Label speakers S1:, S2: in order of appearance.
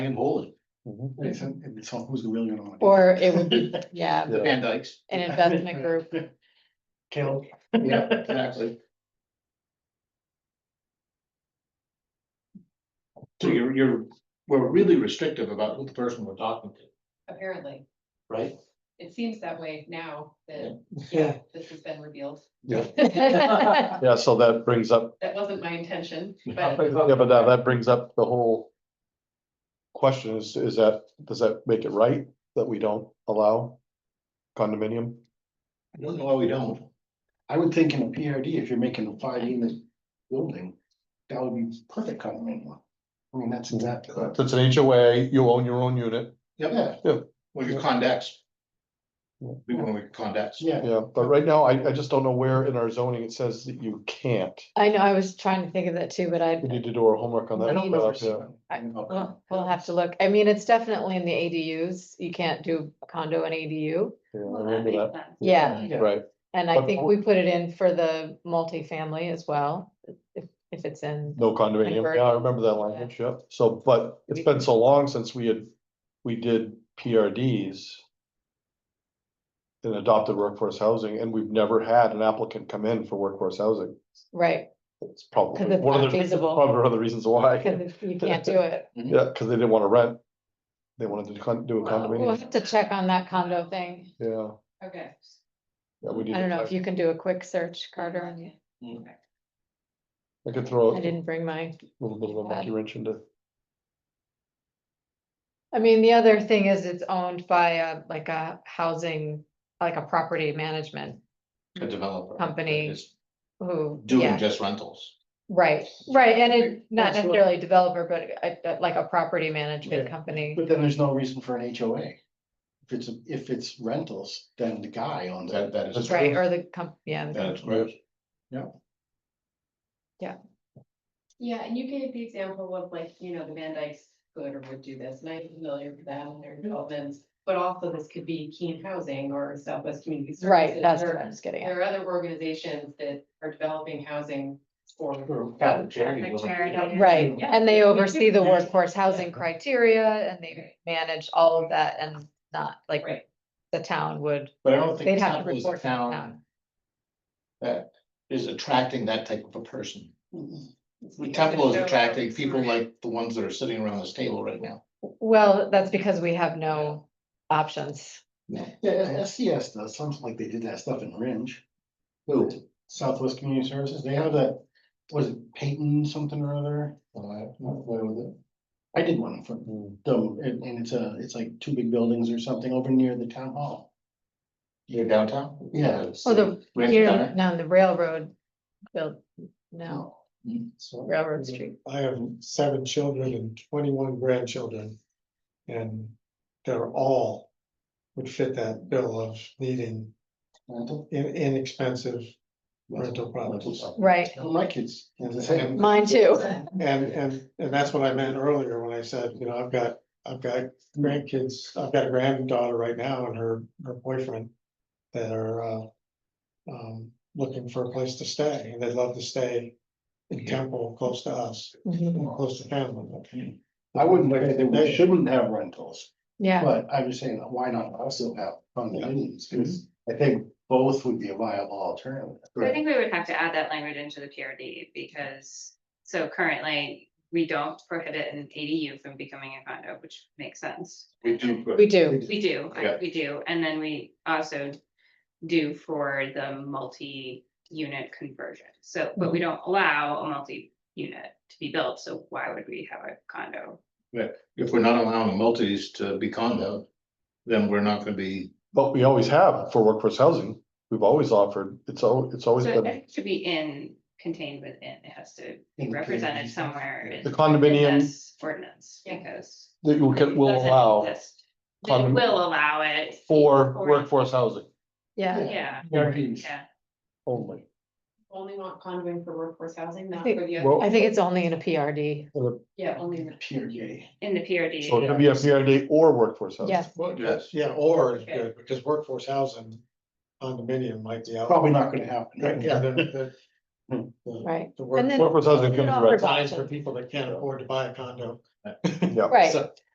S1: am holding.
S2: It's, it's all who's really gonna. want
S3: Or it would be, yeah,
S1: The Van Dykes.
S3: an investment group.
S2: Kill.
S1: Yeah, exactly. So you're, you're, we're really restrictive about who the person we're talking to,
S4: apparently.
S1: right?
S4: It seems that way now that,
S1: Yeah.
S4: yeah, this has been revealed.
S3: Yeah,
S5: Yeah, so that brings up,
S4: That wasn't my intention,
S1: Yeah.
S4: but
S5: yeah, but now that brings up the whole. Question is, is that, does that make it right that we don't allow condominium?
S1: I don't know why we don't.
S2: I would think in a PRD, if you're making a five unit building, that would be perfect condominium. I mean, that's exactly.
S5: If it's an HOA, you own your own unit,
S1: Yep,
S5: Yeah.
S1: when you're condex.
S5: Yeah.
S1: We want to condex.
S2: Yeah,
S5: yeah, but right now, I, I just don't know where in our zoning it says that you can't.
S3: I know, I was trying to think of that too, but I,
S5: We need to do our homework on that.
S2: I don't know. if
S5: Yeah.
S2: it's-
S3: we'll, we'll have to look. I mean, it's definitely in the ADUs. You can't do a condo and ADU.
S5: Yeah, I
S4: well, that
S5: remember that,
S4: makes sense.
S3: Yeah,
S2: Yeah.
S5: right,
S3: and I think we put it in for the multifamily as well, if, if it's in.
S5: no condominium, yeah, I remember that language, yeah, so, but it's been so long since we had, we did PRDs. And adopted workforce housing, and we've never had an applicant come in for workforce housing,
S3: Right,
S5: it's probably
S3: 'Cause it's
S5: one of
S3: not
S5: the,
S3: feasible.
S5: probably one of the reasons why,
S3: because you can't do it.
S5: yeah, cause they didn't wanna rent. They wanted to con- do a
S4: Well,
S3: We'll
S5: condominium,
S3: have to check on that condo thing.
S5: yeah,
S4: Okay.
S5: yeah, we need.
S3: I don't know if
S5: to-
S3: you can do a quick search, Carter. on the-
S5: I could throw
S3: I
S5: a
S3: didn't bring mine.
S5: little bit of a monkey wrench into,
S3: I mean, the other thing is it's owned by a, like a housing, like a property management
S1: A developer.
S3: Company.
S1: that is
S3: who,
S1: Doing
S3: yeah,
S1: just rentals.
S3: right, right, and it, not
S2: That's what-
S3: necessarily a developer, but a- a- like a property management company.
S2: But then there's no reason for an HOA. If it's, if it's rentals, then the guy owns
S1: That,
S2: it.
S1: that is.
S3: Right, or the comp, yeah, the-
S1: That is gross.
S4: Yeah, and you gave the example of like, you know, the Van Dykes could or would do this, and I'm familiar with that and their
S3: Mm-hmm.
S4: developments. But also this could be Keene Housing or Southwest Community Services.
S3: right, that's what
S4: or-
S3: I was getting at.
S4: There are other organizations that are developing housing for.
S3: Mm-hmm.
S2: Or-
S4: Yeah.
S3: Right,
S4: Yeah.
S3: and they oversee the workforce housing criteria and they manage all of that and not like
S4: Right.
S3: the town would,
S1: But I don't think
S3: they'd have to
S1: Temple is a
S3: report to the
S1: town
S3: town.
S1: that is attracting that type of a person. Temple
S4: We
S1: is
S4: have to show-
S1: attracting people like the ones that are sitting around this table right now.
S3: Well, that's because we have no options.
S2: Yeah, SCS does, something like they did that stuff in Ringe,
S1: Who?
S2: Southwest Community Services, they have that, was it Peyton something or other?
S1: Well, Uh, I- Hmm. not familiar with it.
S2: I did one for them, and, and it's a, it's like two big buildings or something over near the town hall.
S1: You're downtown?
S2: Yeah.
S3: Oh, the,
S1: Ranch
S3: you're,
S1: Diner?
S3: no, the railroad, built, no,
S1: Hmm.
S6: So
S3: railroad
S1: Mm-hmm.
S3: street.
S6: I have seven children and twenty-one grandchildren. And they're all would fit that bill of needing
S2: Rental?
S6: in inexpensive rental
S2: Rental
S6: properties.
S2: stuff.
S3: Right,
S2: My kids, as I say,
S6: And,
S3: mine too.
S6: and, and, and that's what I meant earlier when I said, you know, I've got, I've got grandkids, I've got a granddaughter right now and her, her boyfriend. That are, uh, um, looking for a place to stay and they'd love to stay in Temple, close to us,
S1: Mm-hmm.
S3: Mhm.
S6: close to family.
S2: I wouldn't say that we shouldn't have rentals,
S3: Yeah,
S2: but I'm just saying, why not also have condominiums,
S1: Mm-hmm.
S2: 'Cause I think both would be a viable alternative.
S7: So I think we would have to add that language into the PRD because, so currently, we don't prohibit an ADU from becoming a condo, which makes sense.
S1: We do. put-
S3: we do,
S7: We do, I-
S1: Yeah.
S7: we do, and then we also do for the multi-unit conversion. So, but we don't allow a multi-unit to be built, so why would we have a condo?
S1: If we're not allowing multis to be condo, then we're not gonna be,
S5: but we always have for workforce housing, we've always offered, it's al- it's always
S7: So
S5: been.
S7: it should be in, contained within, it has to be
S2: In the
S7: represented
S2: PRD.
S7: somewhere. in-
S5: The
S7: in
S5: condominium
S7: this Ordinance,
S4: Yeah.
S7: because.
S5: that you can, will
S7: doesn't
S5: allow
S7: exist. They
S5: condom-
S7: will allow it.
S5: for
S7: for-
S5: workforce housing
S3: yeah.
S7: Yeah,
S2: PRDs.
S7: yeah.
S5: only.
S4: Only want condoing for workforce housing, not
S3: think-
S4: for the other,
S5: Well,
S3: I think it's only in a PRD.
S4: yeah, only. the-
S2: PRD.
S7: In the PRD.
S5: So it could be a PRD or workforce housing.
S3: Yes,
S1: yes,
S6: Yeah, or is
S7: Okay.
S6: good, because workforce housing condominium might be. out-
S2: Probably not gonna happen.
S6: Right, yeah, the, the. the-
S3: right.
S6: The
S3: And
S6: work-
S3: then-
S5: Workforce housing
S3: It
S5: could be
S3: offers
S5: rented,
S6: Signs for
S3: options.
S6: people that can't afford to buy a condo.
S5: yeah.
S3: Right,
S6: So-